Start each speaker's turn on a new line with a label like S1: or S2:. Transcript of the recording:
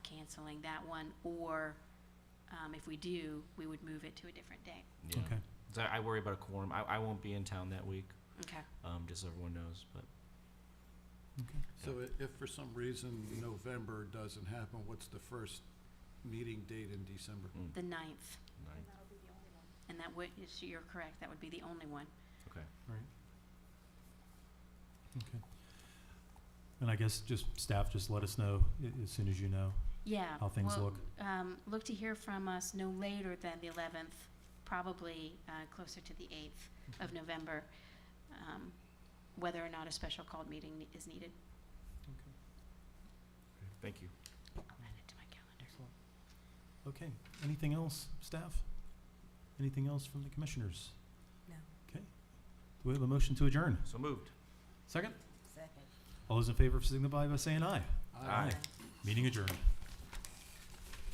S1: canceling that one, or um, if we do, we would move it to a different date.
S2: Yeah.
S3: Okay.
S2: So I I worry about a quorum. I, I won't be in town that week,
S1: Okay.
S2: um, just so everyone knows, but
S4: So i- if for some reason November doesn't happen, what's the first meeting date in December?
S2: mm,
S1: The ninth,
S2: nine,
S1: and that would, is- you're correct, that would be the only one.
S2: okay.
S3: And I guess just staff, just let us know a- as soon as you know.
S1: Yeah.
S3: How things
S1: well,
S3: look.
S1: Um, look to hear from us no later than the eleventh, probably, uh, closer to the eighth of November, um, whether or not a special called meeting ne- is needed.
S2: Thank you.
S1: I'll add it to my calendar.
S3: Excellent. Okay, anything else, staff? Anything else from the commissioners?
S5: No.
S3: Okay. Do we have a motion to adjourn?
S2: So moved.
S3: Second?
S5: Second.
S3: All those in favor signify by saying aye.
S2: Aye.
S3: Meeting adjourned.